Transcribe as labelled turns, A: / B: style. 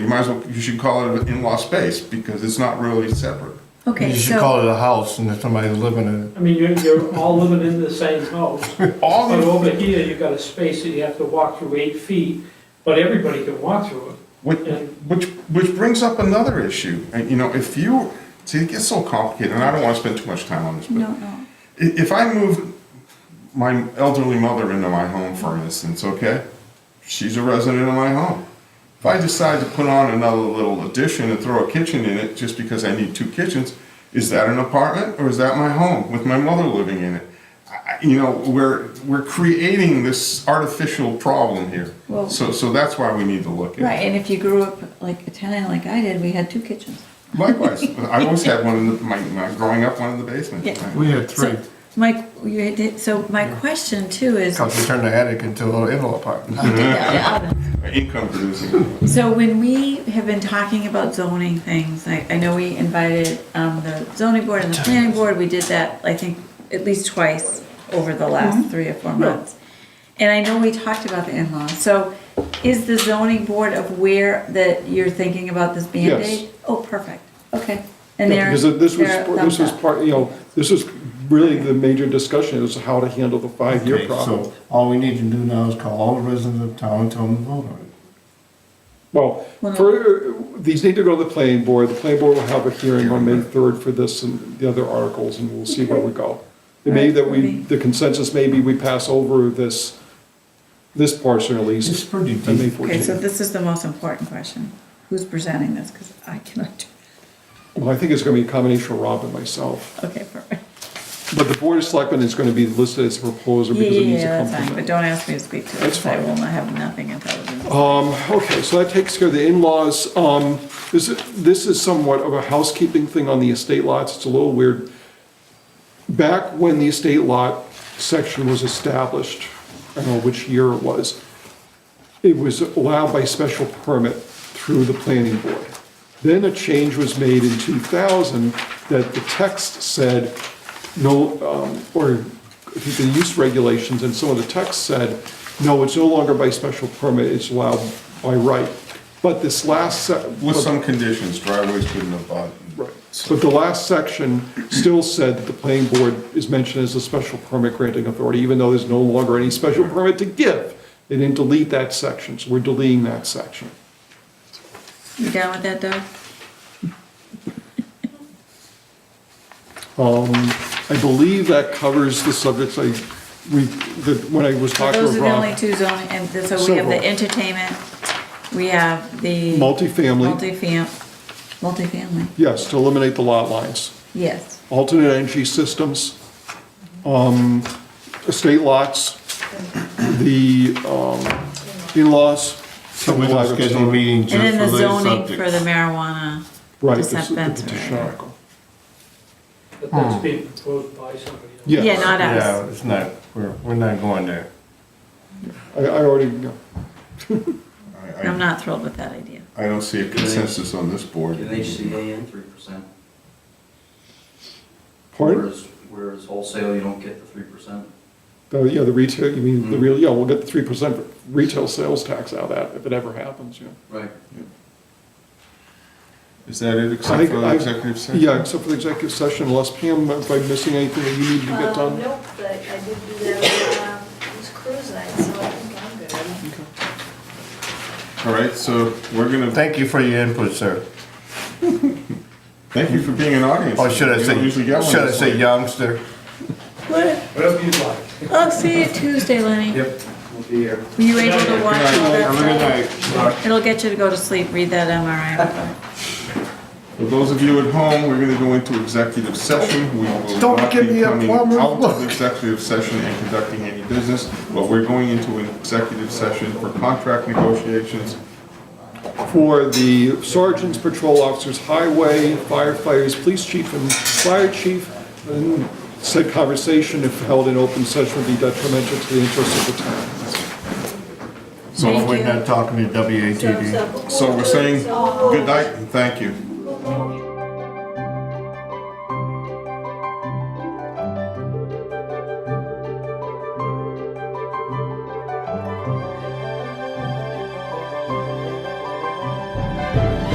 A: might as well, you should call it an in-law space, because it's not really separate.
B: You
C: Okay,
B: should
C: so,
B: call it a house and if somebody's living in it.
D: I mean, you're, you're all living in the same house,
A: All
D: but
A: the,
D: over here, you've got a space that you have to walk through eight feet, but everybody can walk through
A: which,
D: it, and
A: which, which brings up another issue, and you know, if you, see, it gets so complicated, and I don't wanna spend too much time on this, but
C: no, no,
A: I- If I move my elderly mother into my home, for instance, okay, she's a resident of my home. If I decide to put on another little addition and throw a kitchen in it just because I need two kitchens, is that an apartment or is that my home with my mother living in it? I- I- You know, we're, we're creating this artificial problem here.
C: Well-
A: So, so that's why we need to look at
C: right,
A: it.
C: and if you grew up like Italian like I did, we had two kitchens.
A: Likewise, I always had one in the, my, my, growing up, one in the basement.
C: Yeah.
A: right?
B: We had
C: So,
B: three,
C: Mike, you did, so my question too is,
B: because we turned the attic into a little in-law apartment.
C: Yeah, yeah.
A: Income producing.
C: So when we have been talking about zoning things, like, I know we invited, um, the zoning board and the planning board, we did that, I think, at least twice over the
E: Mm-hmm.
C: last three or four months. And I know we talked about the in-laws, so is the zoning board of where that you're thinking about this Band-Aid? Oh, perfect, okay. And
E: Yeah,
C: they're,
E: Because this was,
C: they're
E: this
C: thumbs
E: was
C: up.
E: part, you know, this is really the major discussion is how to handle the five-year problem.
B: So all we need to do now is call all the residents of town and tell them to vote on it.
E: Well, for, these need to go to the planning board, the planning board will have a hearing on May third for this and the other articles, and we'll see where we go. It may that we, the consensus may be we pass over this, this portion at
B: This is
E: least,
B: pretty
E: on May
B: deep.
C: Okay, so
E: fourteenth.
C: this is the most important question, who's presenting this, because I cannot do,
E: Well, I think it's gonna be a combination of Rob and myself,
C: okay, perfect.
E: but the board of selectmen is gonna be listed as a proposer
C: Yeah,
E: because it needs to
C: yeah,
E: come
C: that's fine,
E: from
C: but
E: them.
C: don't ask me to speak to it,
E: That's
C: because I
E: fine.
C: will not have nothing intelligent.
E: Um, okay, so that takes care of the in-laws. Um, this, this is somewhat of a housekeeping thing on the estate lots. It's a little weird. Back when the estate lot section was established, I don't know which year it was, it was allowed by special permit through the planning board. Then a change was made in 2000 that the text said, no, um, or I think the use regulations and some of the text said, no, it's no longer by special permit, it's allowed by right. But this last, se-
A: With some conditions, driveways couldn't have bought.
E: Right. But the last section still said that the planning board is mentioned as a special permit granting authority, even though there's no longer any special permit to give. They didn't delete that section, so we're deleting that section.
C: You down with that, Doug?
E: Um, I believe that covers the subjects I, we, that, when I was
C: So
E: talking
C: those
E: with
C: are the only
E: Rob.
C: two zoning, and th- so we have the
E: Several.
C: entertainment, we have the.
E: Multifamily,
C: Multifam, multifamily,
E: yes, to eliminate the lot lines.
C: yes.
E: Alternate energy systems, um, estate lots, the, um, in-laws.
B: So we don't schedule a meeting
C: And then
B: just
C: the
B: for those
C: zoning for the
B: subjects.
C: marijuana
E: Right, it's the petition
C: dispensary.
E: article.
D: but that's being proposed by somebody else.
E: Yes.
C: Yeah, not us.
B: Yeah, it's not, we're, we're not going there.
E: I, I already, know.
A: I- I-
C: I'm not thrilled with that idea.
A: I don't see a consensus on this board.
F: Give HCA in three percent.
E: pardon?
F: Whereas, whereas wholesale, you don't get the three percent.
E: The- uh, Yeah, the retail, you mean, the
F: Hmm.
E: real, yeah, we'll get the three percent retail sales tax out of that if it ever happens, you know.
F: Right.
A: Is that it,
E: I
A: except
E: think
A: for the
E: I-
A: executive session?
E: Yeah, except for the executive session, unless Pam, if I'm missing anything that you need to get
G: Well,
E: done.
G: Um, nope, but I did do that, um, it was cruise night, so I think I'm good.
A: All right, so we're gonna,
B: Thank you for your input, sir.
A: thank you for being an audience.
B: Or Oh, should
A: You
B: I
A: don't
B: say,
A: usually get one
B: should I
A: this
B: say
A: late.
B: youngster?
C: What?
H: Whatever you'd like.
C: I'll see you Tuesday, Lenny.
H: Yep, we'll be here.
C: Were you able to watch all
B: Have a good
C: that?
B: night.
C: stuff? It'll get you to go to sleep, read that MRI.
A: For those of you at home, we're gonna go into executive session. We will
B: Don't
A: not
B: give
A: be
B: me a
A: coming
B: plumber's
A: out
B: look.
A: of executive session and conducting any business, but we're going into an executive session for contract negotiations.
E: For the sergeants, patrol officers, highway, firefighters, police chief and fire chief, and said conversation if held in open session would be detrimental to the interests of the town.
B: So
C: Thank
B: we're
C: you.
E: Mm-hmm.
B: not talking to WATD.
G: So-
A: So we're saying good night and thank you.
G: so-